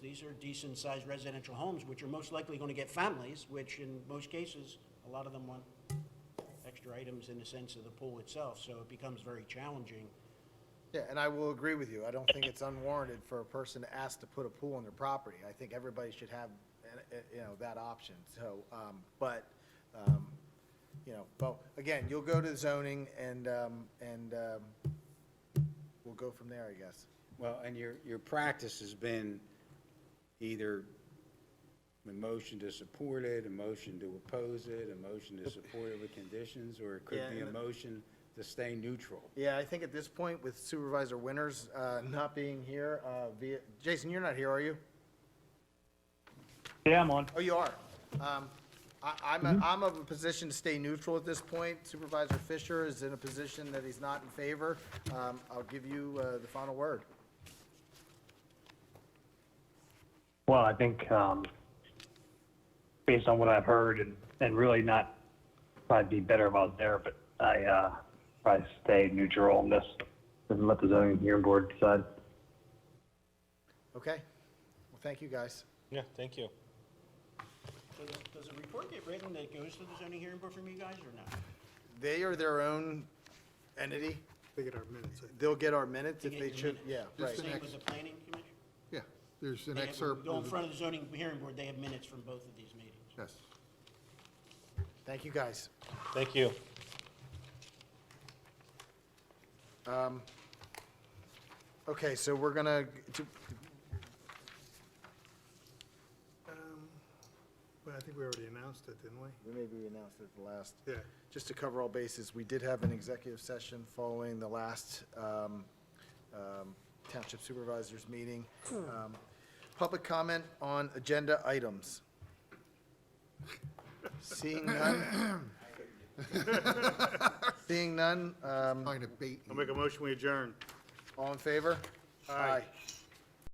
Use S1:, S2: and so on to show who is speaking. S1: these are decent-sized residential homes, which are most likely going to get families, which in most cases, a lot of them want extra items in the sense of the pool itself, so it becomes very challenging.
S2: Yeah, and I will agree with you. I don't think it's unwarranted for a person to ask to put a pool on their property. I think everybody should have, uh, uh, you know, that option, so, um, but, um, you know, but, again, you'll go to zoning and, um, and, um, we'll go from there, I guess.
S3: Well, and your, your practice has been either a motion to support it, a motion to oppose it, a motion to support it with conditions, or it could
S2: Yeah,
S3: be a
S2: and the-
S3: motion to stay neutral.
S2: Yeah, I think at this point, with Supervisor Winters, uh, not being here, uh, via, Jason, you're not here, are you?
S4: Yeah, I'm on.
S2: Oh, you are. Um, I, I'm, a- I'm of a position to stay neutral at this point. Supervisor Fisher is in a position that he's not in favor. Um, I'll give you, uh, the final word.
S4: Well, I think um, based on what I've heard and, and really not, probably be better about there, but I uh, probably stay neutral on this and let the zoning hearing board decide.
S2: Okay? Well, thank you, guys.
S5: Yeah, thank you.
S1: So does- Does a report get written that goes to the zoning hearing board from you guys or not?
S2: They are their own entity.
S6: They get our minutes. I think.
S2: They'll get our minutes if
S1: get
S2: they
S1: your
S2: should,
S1: minutes.
S2: yeah, right.
S6: the
S1: Same
S6: next-
S1: with the planning commission?
S6: Yeah, there's an
S1: They have-
S6: excerpt.
S1: Go in
S6: of the-
S1: front of the zoning hearing board, they have minutes from both of these meetings.
S6: Yes.
S2: Thank you, guys.
S5: Thank you.
S2: Um, Okay, so we're gonna, to-
S6: Um, Well, I think we already announced it, didn't we?
S2: we maybe we announced it at the last.
S6: Yeah.
S2: Just to cover all bases, we did have an executive session following the last um, um, Township Supervisors meeting. Um, Public comment on agenda items. Seeing none. Seeing none, um,
S6: Trying to bait. you.
S7: I'll make a motion, we adjourn.
S2: all in favor? Aye.